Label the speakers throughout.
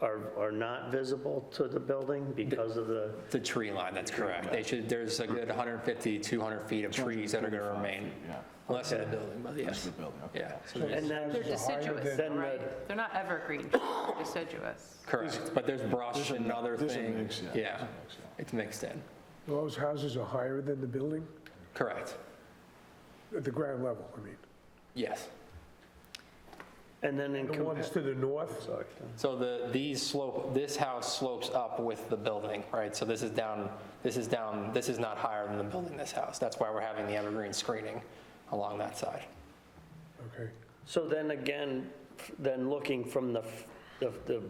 Speaker 1: are, are not visible to the building because of the,
Speaker 2: The tree line, that's correct. They should, there's a good 150, 200 feet of trees that are going to remain,
Speaker 3: yeah.
Speaker 2: less than the building, but yes.
Speaker 3: the building, okay.
Speaker 2: Yeah, so there's-
Speaker 1: and then.
Speaker 4: They're deciduous,
Speaker 1: Then the-
Speaker 4: right? They're not evergreen, they're deciduous.
Speaker 2: correct, but there's brush and other
Speaker 3: there's a
Speaker 2: things.
Speaker 3: mix, yeah,
Speaker 2: Yeah, it's mixed in,
Speaker 5: Those houses are higher than the building,
Speaker 2: correct,
Speaker 5: at the ground level, I mean.
Speaker 2: yes.
Speaker 1: And then in.
Speaker 5: The ones to the north,
Speaker 1: Sorry.
Speaker 2: So the, these slope, this house slopes up with the building, right? So this is down, this is down, this is not higher than the building, this house. That's why we're having the evergreen screening along that side.
Speaker 5: okay.
Speaker 1: So then again, f- then looking from the, f- the, the-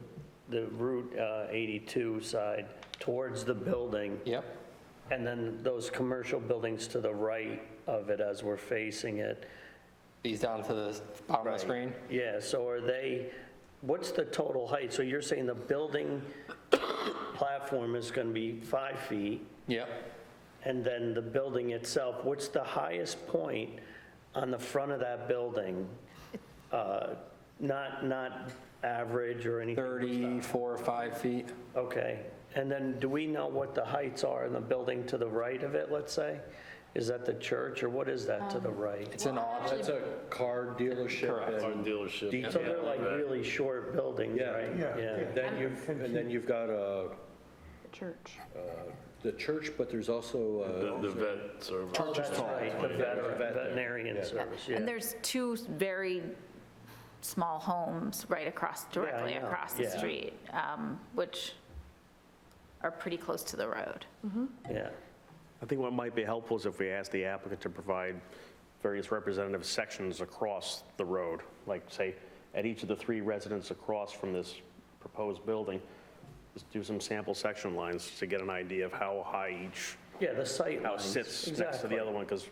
Speaker 1: the Route uh, 82 side towards the building,
Speaker 2: Yep,
Speaker 1: and then those commercial buildings to the right of it as we're facing it.
Speaker 2: these down to the bottom of the screen.
Speaker 1: Yeah, so are they, what's the total height? So you're saying the building platform is going to be five feet,
Speaker 2: Yep,
Speaker 1: and then the building itself, what's the highest point on the front of that building? Uh, Not, not average or anything?
Speaker 2: 34, 5 feet.
Speaker 1: Okay, and then do we know what the heights are in the building to the right of it, let's say? Is that the church, or what is that to the right?
Speaker 2: It's an odd,
Speaker 6: That's a car dealership
Speaker 2: Correct.
Speaker 6: and
Speaker 1: So they're like really short buildings,
Speaker 6: Yeah.
Speaker 1: right?
Speaker 5: Yeah.
Speaker 6: then you've, and then you've got uh,
Speaker 4: Church.
Speaker 6: the church, but there's also uh,
Speaker 7: The vet service.
Speaker 1: Oh, That's right, the veteran-
Speaker 6: Vet there.
Speaker 1: veterinarian service, yeah.
Speaker 8: And there's two very small homes right across, directly
Speaker 1: know,
Speaker 8: across the
Speaker 1: yeah.
Speaker 8: street, um, which are pretty close to the road.
Speaker 1: Yeah,
Speaker 7: I think what might be helpful is if we ask the applicant to provide various representative sections across the road, like, say, at each of the three residents across from this proposed building, just do some sample section lines to get an idea of how high each
Speaker 1: yeah, the sight
Speaker 7: house
Speaker 1: lines.
Speaker 7: sits next to
Speaker 1: Exactly.
Speaker 7: the other one, because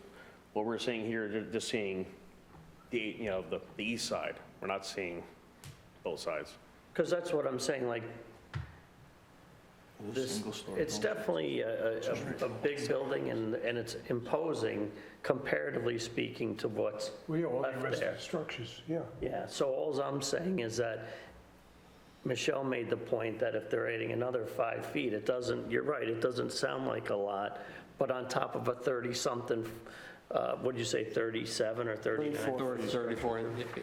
Speaker 7: what we're seeing here, they're just seeing the, you know, the, the east side. We're not seeing both sides.
Speaker 1: Because that's what I'm saying, like, this, it's definitely a, a- a big building and, and it's imposing comparatively speaking to what's
Speaker 5: Well, yeah, all the
Speaker 1: left
Speaker 5: rest of
Speaker 1: there.
Speaker 5: the structures, yeah.
Speaker 1: Yeah, so all I'm saying is that Michelle made the point that if they're adding another five feet, it doesn't, you're right, it doesn't sound like a lot, but on top of a 30-something, uh, what'd you say, 37 or 39?
Speaker 2: 34, 34, yeah.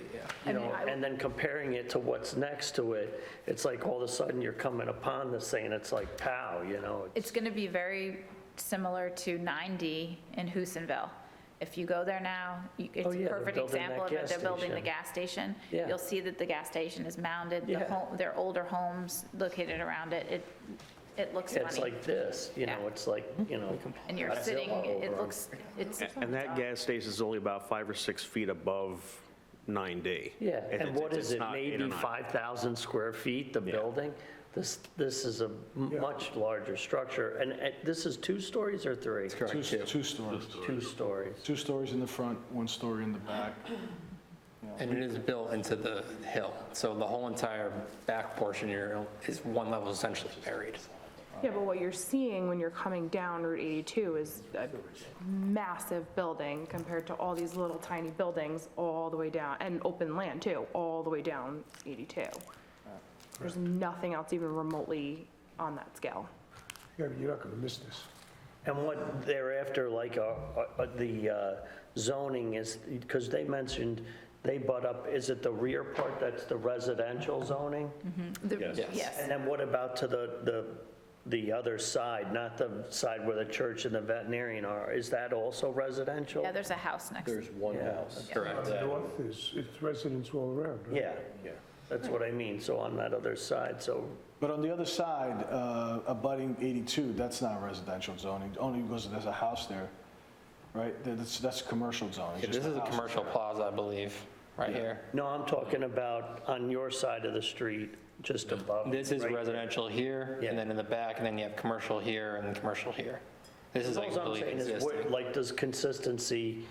Speaker 1: You know, and then comparing it to what's next to it, it's like all of a sudden you're coming upon this thing and it's like, pow, you know?
Speaker 8: It's going to be very similar to 9D in Houstonville. If you go there now, you- it's
Speaker 1: Oh, yeah,
Speaker 8: a
Speaker 1: they're
Speaker 8: perfect
Speaker 1: building that
Speaker 8: example of it.
Speaker 1: gas
Speaker 8: They're building the
Speaker 1: station.
Speaker 8: gas station.
Speaker 1: Yeah.
Speaker 8: You'll see that the gas station is mounded,
Speaker 1: Yeah.
Speaker 8: the home, there are older homes located around it. It, it looks
Speaker 1: It's
Speaker 8: funny.
Speaker 1: like this, you know,
Speaker 8: Yeah.
Speaker 1: it's like, you know?
Speaker 8: And you're
Speaker 1: Godzilla
Speaker 8: sitting,
Speaker 1: over
Speaker 8: it
Speaker 1: 'em.
Speaker 8: looks, it's.
Speaker 1: Oh,
Speaker 7: And that gas station is only about five or six feet above 9D.
Speaker 1: Yeah, and
Speaker 7: it's-
Speaker 1: what
Speaker 7: it's
Speaker 1: is it,
Speaker 7: not eight or
Speaker 1: maybe
Speaker 7: nine.
Speaker 1: 5,000 square feet, the building? This, this is a m- much larger structure, and uh, this is two stories or three?
Speaker 2: Correct.
Speaker 3: Two two stories,
Speaker 1: Two stories.
Speaker 3: two stories in the front, one story in the back.
Speaker 2: And it is built into the hill, so the whole entire back portion here is one level essentially buried.
Speaker 9: Yeah, but what you're seeing when you're coming down Route 82 is a massive building compared to all these little tiny buildings all the way down, and open land too, all the way down 82. There's nothing else even remotely on that scale.
Speaker 5: Yeah, you're not going to miss this.
Speaker 1: And what thereafter, like, uh, uh, the uh, zoning is, because they mentioned, they butt up, is it the rear part that's the residential zoning?
Speaker 8: the- Yes.
Speaker 1: And then what about to the, the, the other side, not the side where the church and the veterinarian are? Is that also residential?
Speaker 8: Yeah, there's a house next to
Speaker 6: there's one house.
Speaker 2: Correct.
Speaker 5: North is, it's residents all around, right?
Speaker 1: Yeah, that's what I mean, so on that other side, so,
Speaker 3: But on the other side, uh, abutting 82, that's not residential zoning, only because there's a house there, right? That's, that's commercial zoning.
Speaker 2: This
Speaker 3: just
Speaker 2: is a
Speaker 3: house.
Speaker 2: commercial plaza, I believe, right here.
Speaker 1: no, I'm talking about on your side of the street, just above.
Speaker 2: This is
Speaker 1: right?
Speaker 2: residential here,
Speaker 1: Yeah.
Speaker 2: and then in the back, and then you have commercial here and commercial here. This is like,
Speaker 1: All I'm
Speaker 2: really
Speaker 1: saying is, what-
Speaker 2: existing.
Speaker 1: like, does consistency,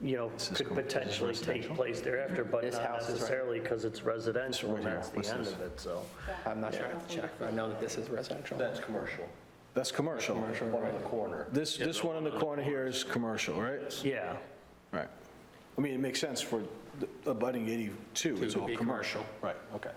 Speaker 1: you know, could potentially take place thereafter, but
Speaker 2: This
Speaker 1: not
Speaker 2: house is right-
Speaker 1: necessarily because it's residential, and
Speaker 3: here.
Speaker 1: that's the
Speaker 3: What's
Speaker 1: end
Speaker 3: this?
Speaker 1: of it, so.
Speaker 2: I'm not sure, I have to check, but I know that this is residential.
Speaker 6: That's commercial,
Speaker 3: That's commercial.
Speaker 6: one on the corner.
Speaker 3: This, this one in the corner here is commercial, right?
Speaker 1: Yeah,
Speaker 3: Right. I mean, it makes sense for the abutting 82, it's
Speaker 2: To
Speaker 3: all
Speaker 2: be
Speaker 3: commercial.
Speaker 2: commercial.
Speaker 3: Right, okay.